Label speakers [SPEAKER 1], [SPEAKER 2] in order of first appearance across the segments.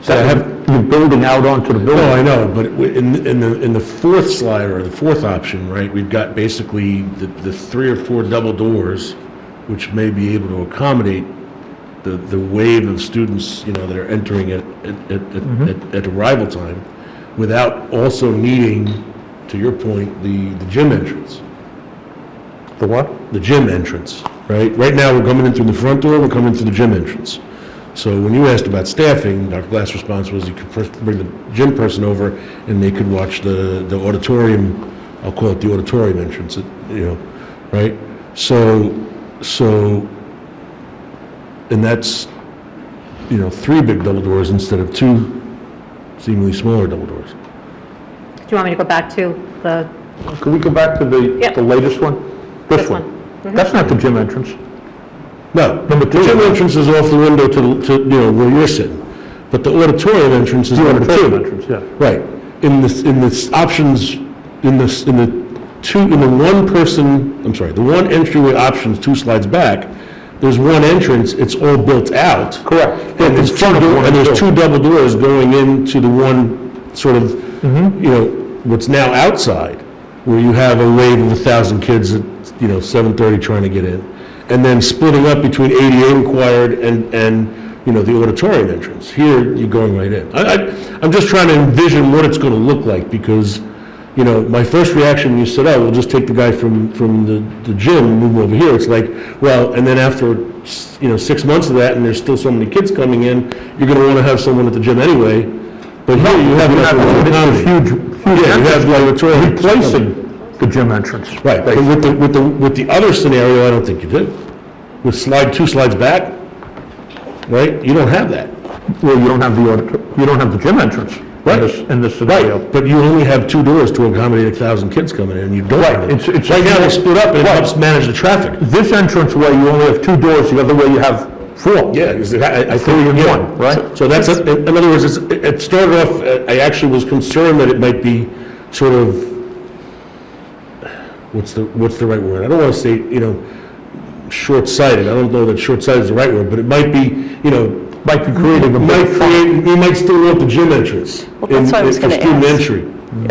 [SPEAKER 1] So have, you're building out onto the
[SPEAKER 2] No,
[SPEAKER 1] building.
[SPEAKER 2] I know, but w- in, in the, in the fourth slide, or the fourth option, right, we've got basically the, the three or four double doors, which may be able to accommodate the, the wave of students, you know, that are entering at, at, at-
[SPEAKER 1] Mm-hmm.
[SPEAKER 2] at, at arrival time, without also needing, to your point, the, the gym entrance,
[SPEAKER 1] The what?
[SPEAKER 2] the gym entrance, right? Right now, we're coming in through the front door, we're coming in through the gym entrance. So when you asked about staffing, Dr. Glass' response was you could first bring the gym person over and they could watch the, the auditorium, I'll call it the auditorium entrance, it- you know, right? So, so, and that's, you know, three big double doors instead of two seemingly smaller double doors.
[SPEAKER 3] Do you want me to go back to the,
[SPEAKER 1] Can we go back to the,
[SPEAKER 3] Yep.
[SPEAKER 1] the latest one?
[SPEAKER 3] This Mm-hmm.
[SPEAKER 1] That's not the gym entrance.
[SPEAKER 2] No,
[SPEAKER 1] Number
[SPEAKER 2] the
[SPEAKER 1] two.
[SPEAKER 2] gym entrance is off the window to, the- to, you know, where you're sitting, but the auditorium entrance is number
[SPEAKER 1] Gym
[SPEAKER 2] two.
[SPEAKER 1] entrance, yeah.
[SPEAKER 2] Right. In this, in this options, in this, in the two, in the one person, I'm sorry, the one entryway options, two slides back, there's one entrance, it's all built out.
[SPEAKER 1] Correct.
[SPEAKER 2] And there's
[SPEAKER 1] In
[SPEAKER 2] two,
[SPEAKER 1] front of
[SPEAKER 2] do-
[SPEAKER 1] one
[SPEAKER 2] and
[SPEAKER 1] door.
[SPEAKER 2] there's two double doors going into the one sort of, you know, what's now outside, where you have a wave of a thousand kids at, you know, 7:30 trying to get in. And then splitting up between ADA required and, and, you know, the auditorium entrance. Here, you're going right in. I, I, I'm just trying to envision what it's gonna look like, because, you know, my first reaction, when you said, oh, we'll just take the guy from, from the, the gym and move him over here. It's like, well, and then after, s- you know, six months of that, and there's still so many kids coming in, you're gonna wanna have someone at the gym anyway. But here, you have enough of an economy.
[SPEAKER 1] Huge, huge
[SPEAKER 2] Yeah, you
[SPEAKER 1] entrance,
[SPEAKER 2] have like a toilet.
[SPEAKER 1] replacing the gym entrance.
[SPEAKER 2] Right, but with the, with the, with the other scenario, I don't think you did. With slide, two slides back, right, you don't have that.
[SPEAKER 1] Well, you don't have the, audit- you don't have the gym entrance
[SPEAKER 2] Right.
[SPEAKER 1] in this, in this scenario.
[SPEAKER 2] But you only have two doors to accommodate a thousand kids coming in, and you don't have
[SPEAKER 1] it's- it's-
[SPEAKER 2] it. Right now, they split up, and it helps manage the traffic.
[SPEAKER 1] This entrance way, you only have two doors, the other way you have four.
[SPEAKER 2] Yeah, is it- I, I think.
[SPEAKER 1] Three and
[SPEAKER 2] yeah.
[SPEAKER 1] one, right?
[SPEAKER 2] So that's, a- in in other words, it's, it it started off, uh, I actually was concerned that it might be sort of, what's the, what's the right word? I don't wanna say, you know, short-sighted, I don't know that short-sighted is the right word, but it might be, you know,
[SPEAKER 1] Might be creating a.
[SPEAKER 2] might create, you might still want the gym entrance.
[SPEAKER 4] Well, that's
[SPEAKER 2] in-
[SPEAKER 4] what I was
[SPEAKER 2] for
[SPEAKER 4] gonna
[SPEAKER 2] Student
[SPEAKER 4] ask.
[SPEAKER 2] entry.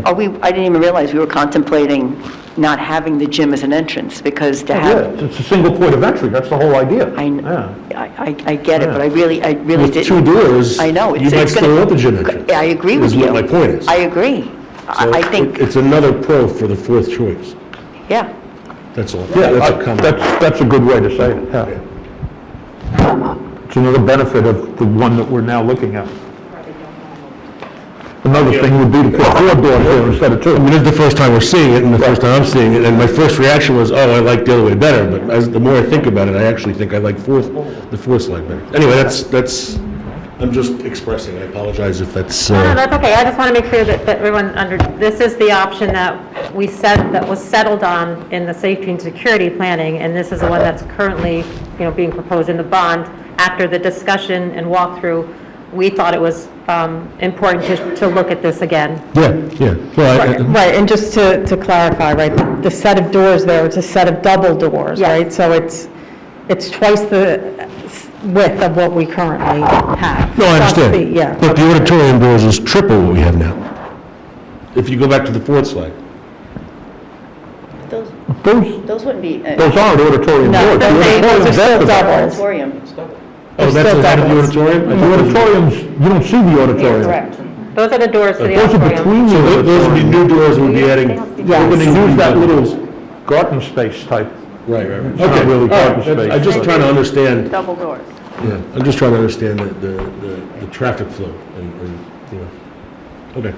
[SPEAKER 4] Are we, I didn't even realize we were contemplating not having the gym as an entrance, because
[SPEAKER 2] Oh,
[SPEAKER 4] to
[SPEAKER 1] Yeah,
[SPEAKER 4] have,
[SPEAKER 1] it's- it's a single point of entry, that's the whole idea.
[SPEAKER 4] I, kn-
[SPEAKER 1] Yeah.
[SPEAKER 4] I, I- I get it, but I really, I really
[SPEAKER 2] With two
[SPEAKER 4] didn't.
[SPEAKER 2] doors.
[SPEAKER 4] I know.
[SPEAKER 2] You
[SPEAKER 4] it's-
[SPEAKER 2] might
[SPEAKER 4] it's gonna-
[SPEAKER 2] still want the gym entrance.
[SPEAKER 4] I agree with
[SPEAKER 2] Is
[SPEAKER 4] you.
[SPEAKER 2] what my point is.
[SPEAKER 4] I agree. I
[SPEAKER 2] So
[SPEAKER 4] I think,
[SPEAKER 2] It's another pro for the fourth choice,
[SPEAKER 4] yeah.
[SPEAKER 2] that's all.
[SPEAKER 1] Yeah,
[SPEAKER 2] That's a
[SPEAKER 1] I-
[SPEAKER 2] comment.
[SPEAKER 1] that's, that's a good way to say it, yeah. It's another benefit of the one that we're now looking at. Another thing would be to put four doors there instead of
[SPEAKER 2] I
[SPEAKER 1] two.
[SPEAKER 2] mean, this is the first time we're seeing it, and the first time I'm seeing it, and my first reaction was, oh, I like the other way better, but as, the more I think about it, I actually think I like fourth, the fourth slide better. Anyway, that's, that's, I'm just expressing, I apologize if that's,
[SPEAKER 3] no, no,
[SPEAKER 2] uh,
[SPEAKER 3] that's okay, I just want to make sure that, that everyone under, this is the option that we said, that was settled on in the safety and security planning, and this is the one that's currently, you know, being proposed in the bond. After the discussion and walkthrough, we thought it was um, important to, to look at this again.
[SPEAKER 2] yeah, yeah. Well, I-
[SPEAKER 5] Right, and just to, to clarify, right, the- the set of doors there, it's a set of double doors,
[SPEAKER 3] Yes.
[SPEAKER 5] right? So it's, it's twice the width of what we currently have.
[SPEAKER 2] No, I
[SPEAKER 5] Plus the-
[SPEAKER 2] understand.
[SPEAKER 5] Yeah.
[SPEAKER 2] But the auditorium doors is triple what we have now. If you go back to the fourth slide.
[SPEAKER 6] Those,
[SPEAKER 1] Those,
[SPEAKER 6] those wouldn't be, uh,
[SPEAKER 1] those aren't auditorium
[SPEAKER 5] No,
[SPEAKER 1] doors.
[SPEAKER 5] those
[SPEAKER 1] The
[SPEAKER 5] are- those are
[SPEAKER 1] auditorium's
[SPEAKER 5] still
[SPEAKER 1] after that.
[SPEAKER 5] doubles.
[SPEAKER 6] auditorium.
[SPEAKER 2] Oh, that's
[SPEAKER 5] still
[SPEAKER 2] the head of the
[SPEAKER 5] doubles.
[SPEAKER 2] auditorium? I
[SPEAKER 1] The
[SPEAKER 2] thought it was-
[SPEAKER 1] auditoriums, you don't see the auditorium.
[SPEAKER 3] Those are the doors to the
[SPEAKER 1] Those are
[SPEAKER 3] auditorium.
[SPEAKER 1] between the
[SPEAKER 2] So tho- those would be
[SPEAKER 1] auditorium.
[SPEAKER 2] new doors we'll be adding.
[SPEAKER 5] Yes.
[SPEAKER 2] We're
[SPEAKER 1] When they
[SPEAKER 2] gonna
[SPEAKER 1] use that little garden space type.
[SPEAKER 2] Right, right, right.
[SPEAKER 1] not
[SPEAKER 2] Okay,
[SPEAKER 1] really
[SPEAKER 2] all right,
[SPEAKER 1] parking
[SPEAKER 2] that's- I'm
[SPEAKER 1] space,
[SPEAKER 2] just
[SPEAKER 1] but-
[SPEAKER 2] trying to understand,
[SPEAKER 6] double doors.
[SPEAKER 2] yeah, I'm just trying to understand the, the, the- the traffic flow and, and, you know. Okay.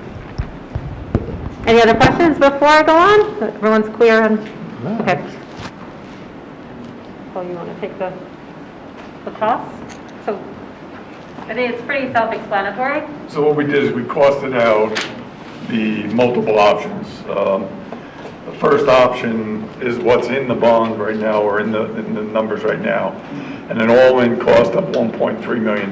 [SPEAKER 3] Any other questions before I go on? Everyone's clear on, okay. So you want to take the, the cost? So, I think it's pretty self-explanatory.
[SPEAKER 7] So what we did is we costed out the multiple options. Um, The first option is what's in the bond right now, or in the, in the numbers right now, and an all-in cost of $1.3 million.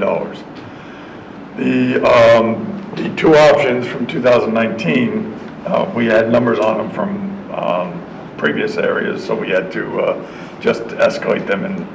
[SPEAKER 7] The, um, the two options from 2019, uh, we had numbers on them from um, previous areas, so we had to uh, just escalate them and